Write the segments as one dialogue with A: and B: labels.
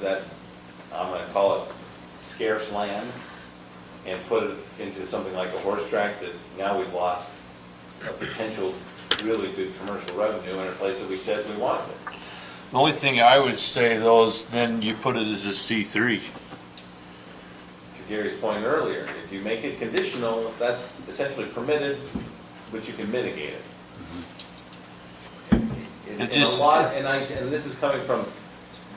A: that, I'm gonna call it scarce land, and put it into something like a horse track that now we've lost a potential really good commercial revenue in a place that we said we wanted it.
B: The only thing I would say though is then you put it as a C three.
A: to Gary's point earlier, if you make it conditional, that's essentially permitted, but you can mitigate it. And-
B: It
A: And a
B: just-
A: lot, and I, and this is coming from,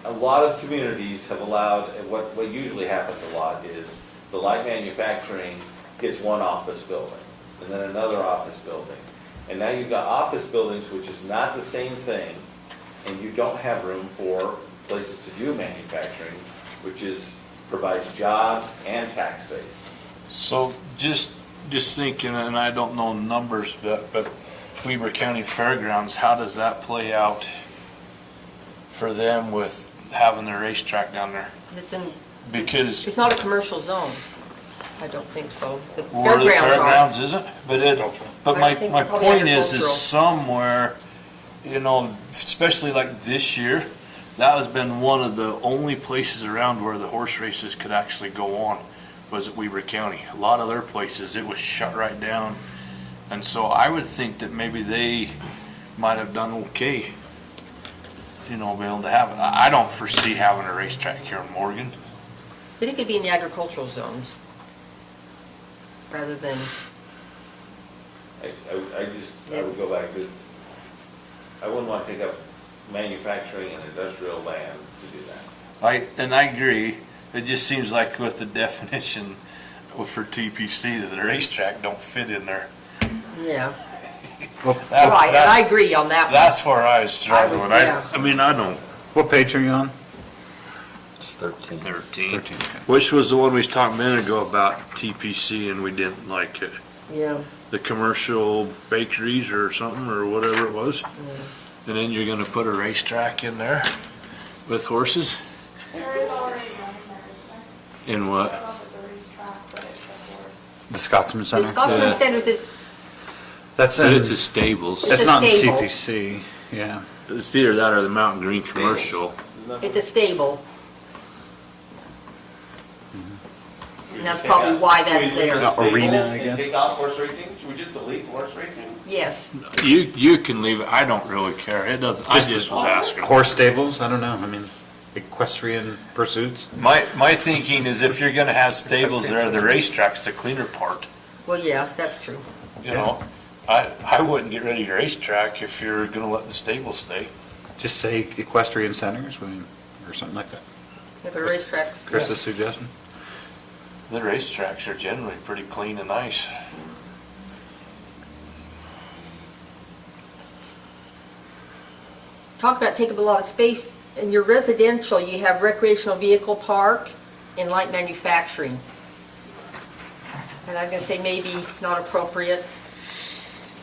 A: a lot of communities have allowed, and what, what usually happens a lot is the light manufacturing gets one office building, and then another office building. And now you've got office buildings, which is not the same thing, and you don't have room for places to do manufacturing, which is, provides jobs and tax base.
B: So just, just thinking, and I don't know numbers, but, but Weber County Fairgrounds, how does that play out for them with having their racetrack down there?
C: 'Cause It's in,
B: Because
C: it's not a commercial zone. I don't think so. The
B: where the
C: fairgrounds are.
B: fairgrounds isn't, but it, but
C: I
B: my,
C: think
B: my
C: probably
B: point is, is
C: agricultural.
B: somewhere, you know, especially like this year, that has been one of the only places around where the horse races could actually go on, was at Weber County. A lot of other places, it was shut right down. And so I would think that maybe they might have done okay, you know, being able to have it. I, I don't foresee having a racetrack here in Morgan.
C: But it could be in the agricultural zones rather than,
A: I, I, I just, I would go back to, I wouldn't want to take up manufacturing and industrial land to do that.
B: I, and I agree, it just seems like with the definition for TPC, that the racetrack don't fit in there.
C: yeah,
B: That-
C: right, and I
B: that-
C: agree on that one.
B: That's where I was struggling,
C: yeah.
B: I, I mean, I don't.
D: What page are you on?
B: Mm-hmm.
E: It's 13.
B: Thirteen.
D: Thirteen. okay.
B: Which was the one we was talking a minute ago about TPC and we didn't like it,
C: Yeah,
B: the commercial bakeries or something, or whatever it was.
C: Mm.
B: And then you're gonna put a racetrack in there with horses?
F: There is already one
B: In
F: in there, isn't there? I
B: what?
F: don't know if the Breeze track, but it's a horse.
D: The Scotsman
C: the
D: Center.
C: Scotsman
B: Yeah.
C: Center's, a-
D: That's
B: But
D: in,
B: it's a stables,
C: It's
D: that's
C: a
D: not in
C: stable.
D: TPC, yeah.
B: it's either that or the Mountain Green Commercial.
A: Isn't that-
C: it's a stable.
A: Should we
C: and that's
A: take out-
C: probably why that's
A: should we leave
C: there.
A: the stables
D: Arena, I
A: and
D: guess.
A: Take out horse racing, should we just delete horse racing?
C: Yes,
B: You, you can leave it, I don't really care, it doesn't, I just was asking.
D: Horse stables, I don't know, I mean, equestrian pursuits.
B: My, my thinking is if you're gonna have stables there, the racetrack's the cleaner part,
C: well, yeah, that's true.
B: you know? I, I wouldn't get rid of your racetrack if you're gonna let the stable stay.
D: Just say equestrian centers, I mean, or something like that.
C: If a racetrack's,
D: Chris's suggestion.
B: The racetracks are generally pretty clean and nice.
C: talk about taking up a lot of space. In your residential, you have recreational vehicle park and light manufacturing. And I'm gonna say maybe not appropriate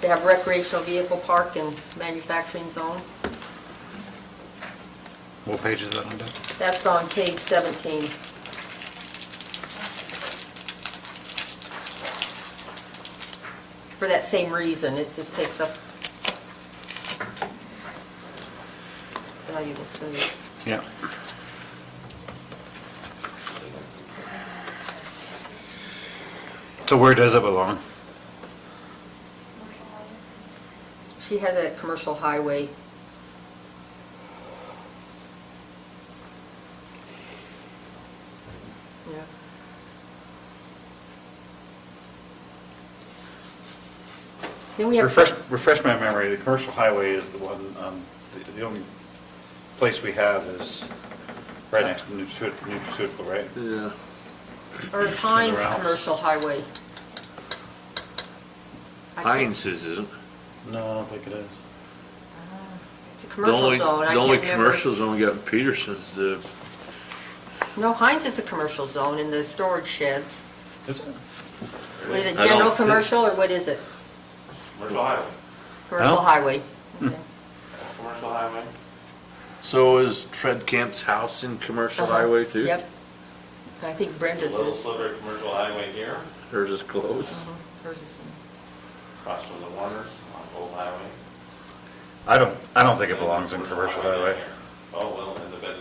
C: to have recreational vehicle park and manufacturing zone.
D: What page is that on, Doug?
C: That's on page 17. For that same reason, it just takes up valuable space.
D: Yeah. So where does it belong?
C: She has a commercial highway. Yeah. Then we have.
D: Refresh, refresh my memory, the commercial highway is the one, um, the, the only place we have is right next to Nutraceutical, Nutraceutical, right?
B: Yeah.
C: Or is Heinz
D: Somewhere else.
C: Commercial Highway? I can't-
B: Heinz's isn't.
D: No, I don't think it is.
C: It's a
B: The
C: commercial
B: only,
C: zone, I
B: the
C: can't
B: only
C: remember.
B: commercial's only got Peterson's, the,
C: No, Heinz is a commercial zone in the storage sheds.
D: Is it?
C: What is it,
B: I don't
C: general
B: thi-
C: commercial, or what is it?
A: Commercial highway,
C: Commercial
D: No.
C: highway?
B: Hmm.
C: Okay.
A: commercial highway.
B: so is Fred Camp's house in Commercial
C: Uh-huh.
B: Highway too?
C: Yep. And I think Brenda's
A: Little
C: is. uh-huh,
A: sliver of commercial highway here,
B: Hers is closed.
C: Hers is-
A: across from the Warners on Old Highway.
D: I don't, I don't think it belongs in commercial highway.
A: Oh, well, and the bed,